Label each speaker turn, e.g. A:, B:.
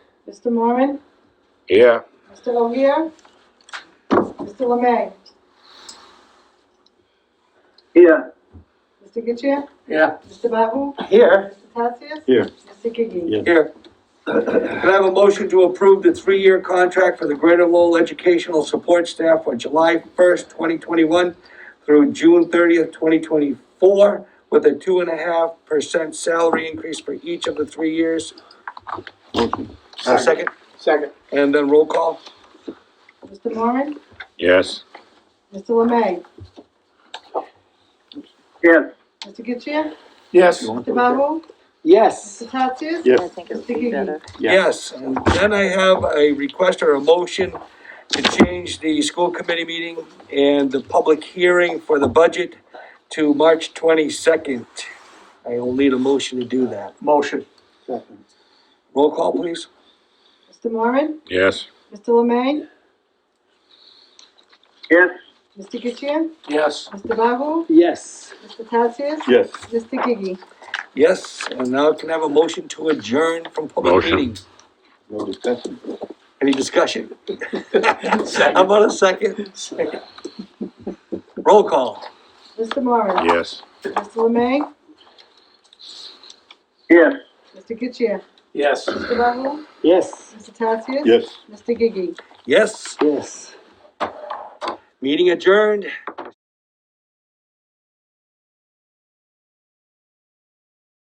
A: Mr. Moran?
B: Here.
A: Mr. O'Hare? Mr. Lemay?
C: Here.
A: Mr. Getchir?
C: Yeah.
A: Mr. Bahu?
C: Here.
A: Mr. Tatsias?
B: Here.
A: Mr. Gigi?
B: Yes.
C: Here. Can I have a motion to approve the three-year contract for the Greater Lowell Educational Support Staff for July first, twenty twenty-one through June thirtieth, twenty twenty-four, with a two and a half percent salary increase for each of the three years? Uh, second,
D: Second.
C: and then roll call?
A: Mr. Moran?
B: Yes.
A: Mr. Lemay?
C: Yes.
A: Mr. Getchir?
D: Yes.
A: Mr. Bahu?
D: Yes.
A: Mr. Tatsias?
B: Yes.
E: I think it would be better.
C: Yes, and then I have a request or a motion to change the school committee meeting and the public hearing for the budget to March twenty-second. I will need a motion to do that.
D: Motion.
C: Roll call, please.
A: Mr. Moran?
B: Yes.
A: Mr. Lemay?
C: Yes.
A: Mr. Getchir?
D: Yes.
A: Mr. Bahu?
D: Yes.
A: Mr. Tatsias?
B: Yes.
A: Mr. Gigi?
C: Yes, and now can I have a motion to adjourn from public
B: Motion.
C: meetings? Any discussion? How about a second?
D: Second.
C: Roll call.
A: Mr. Moran?
B: Yes.
A: Mr. Lemay?
C: Yes.
A: Mr. Getchir?
D: Yes.
A: Mr. Bahu?
D: Yes.
A: Mr. Tatsias?
B: Yes.
A: Mr. Gigi?
C: Yes,
D: Yes.
C: meeting adjourned.